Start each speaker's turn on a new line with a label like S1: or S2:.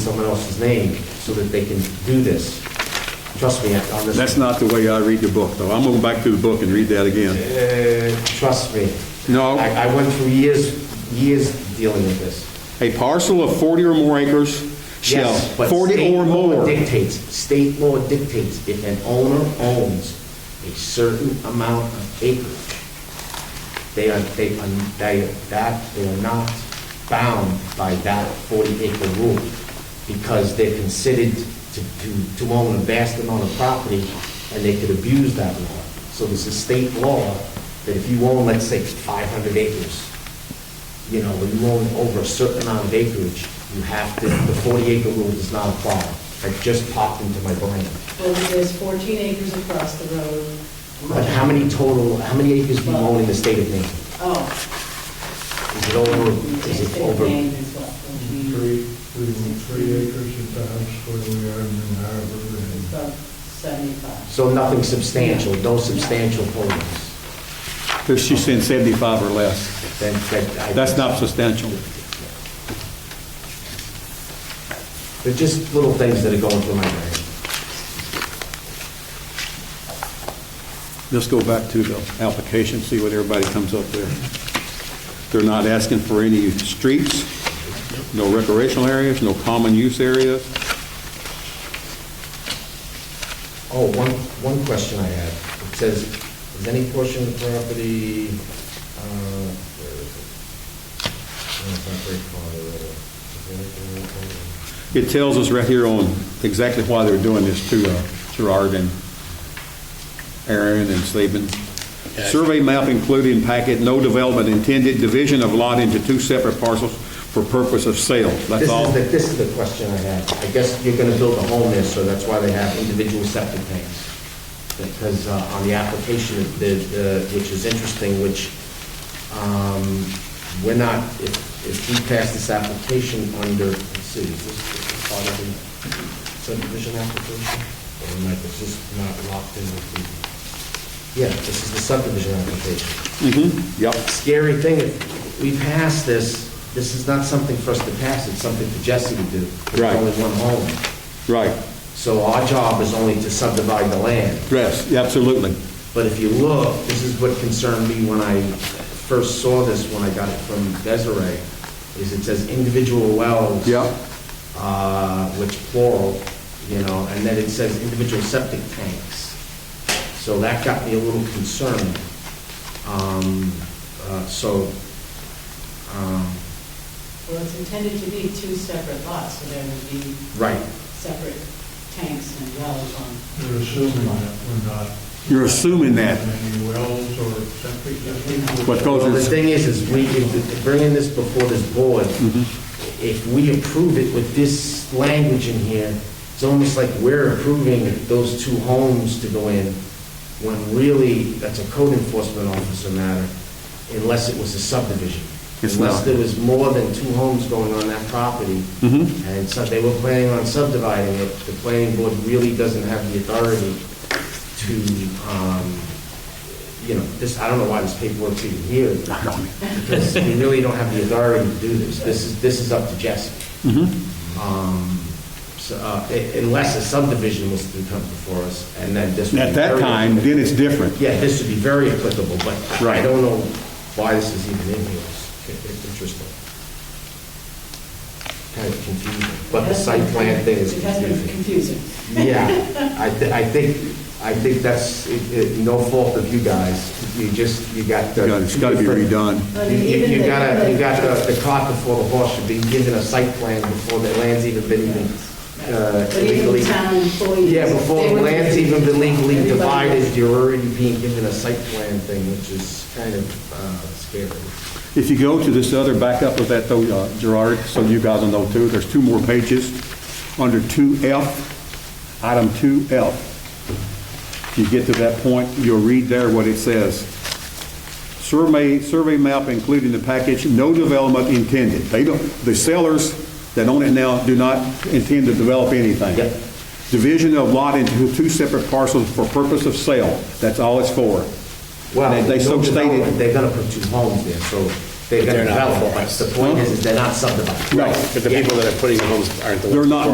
S1: someone else's name so that they can do this. Trust me on this.
S2: That's not the way I read the book, though. I'm going back to the book and read that again.
S1: Uh, Trust me.
S2: No.
S1: I, I went through years, years dealing with this.
S2: A parcel of 40 or more acres shall,
S1: Yes, but
S2: 40
S1: state
S2: or
S1: law
S2: more.
S1: Dictates, state law dictates if an owner owns a certain amount of acreage, they are, they are, they are, that, they are not bound by that forty acre rule because they're considered to, to, to own a vast amount of property and they could abuse that law. So there's a state law that if you own, let's say, five hundred acres, you know, when you own over a certain amount of acreage, you have to, the 40 acre rule does not apply. That just popped into my brain.
S3: Well, there's 14 acres across the road.
S1: But how many total, how many acres do you own in the state of Maine?
S3: Oh.
S1: Is it over, is it over?
S3: Land is what, 14?
S4: Three, we were three acres at the house where we are in New Harbor,
S3: It's
S4: and
S3: about 75.
S1: So nothing substantial, no substantial holdings?
S2: She's saying 75 or less.
S1: Then, that I...
S2: That's not substantial.
S1: They're just little things that are going through my brain.
S2: Let's go back to the application, see what everybody comes up there. They're not asking for any streets, no recreational areas, no common use areas.
S1: Oh, one, one question I had. It says, is any portion of the property, uh, where is it? No, it's not very far, uh,
S2: It tells us right here on exactly why they're doing this to uh, Gerard and Aaron and Saban. Survey map included in packet, no development intended, division of lot into two separate parcels for purpose of sale. That's all.
S1: This is the, this is the question I had. I guess you're gonna build a home there, so that's why they have individual septic tanks. Because uh, on the application, the, the- which is interesting, which, um, we're not, if, if we pass this application under, let's see, is this is this part of the subdivision application? Or am I, is this not locked in with the, yeah, this is the subdivision application
S2: Mm-hmm. Yep.
S1: scary thing, if we pass this, this is not something for us to pass, it's something for Jesse to do. There's
S2: Right.
S1: only one home.
S2: Right.
S1: So our job is only to subdivide the land.
S2: Yes, absolutely.
S1: But if you look, this is what concerned me when I first saw this, when I got it from Desiree, is it says individual wells.
S2: Yep.
S1: Uh, which plural, you know, and then it says individual septic tanks. So that got me a little concerned. Um, uh, so, um,
S3: Well, it's intended to be two separate lots, so there would be
S1: right,
S3: separate tanks and wells on.
S4: we're assuming that we're not.
S2: You're assuming that.
S4: Any wells or septic systems.
S2: What
S1: Well, the
S2: goes in,
S1: thing is, is we, if- bringing this before this board,
S2: Mm-hmm.
S1: if we approve it with this language in here, it's almost like we're approving those two homes to go in, when really, that's a code enforcement officer matter, unless it was a subdivision.
S2: It's
S1: Unless
S2: not.
S1: there was more than two homes going on that property, and so they were planning on subdividing it, the planning board really doesn't have the authority to, um, you know, this, I don't know why this paperwork's even here. Because we really don't have the authority to do this. This is, this is up to Jesse.
S2: Mm-hmm.
S1: Um, So, uh, i- unless a subdivision was to come before us, and then this would be
S2: at that
S1: very-
S2: time, then it's different.
S1: Yeah, this would be very applicable, but I- I
S2: Right.
S1: don't know why this is even in here. It's it's interesting. Kind of confusing, but the site plan thing is
S3: It has been confusing.
S1: yeah, I, thi- I think, I think that's, it- it- no fault of you guys, you just, you got the...
S2: You gotta- It's got to be redone.
S3: But
S1: You- You
S3: even
S1: you
S3: the-
S1: gotta, you got the the cart before the horse, should be given a site plan before the land's even been even uh,
S3: But
S1: legally...
S3: even town employees.
S1: Yeah, before
S3: they
S1: the
S3: were-
S1: land's even been legally
S3: Everybody-
S1: divided, you're already being given a site plan thing, which is kind of uh, scary.
S2: If you go to this other backup of that, though, uh, Gerard, so you guys will know too, there's two more pages under 2F, item 2F. If you get to that point, you'll read there what it says. Survey, survey map including the package, no development intended. They don't, the sellers that own it now do not intend to develop anything.
S1: Yep.
S2: Division of lot into two separate parcels for purpose of sale. That's all it's for.
S1: Well,
S2: They- they so
S1: no
S2: stated-
S1: development, they're gonna put two homes there, so They're gonna
S5: They're not
S1: develop, but
S5: forest.
S1: the point is, is they're not subdivided.
S2: Right.
S5: But the people that are putting the homes aren't the ones.
S2: They're not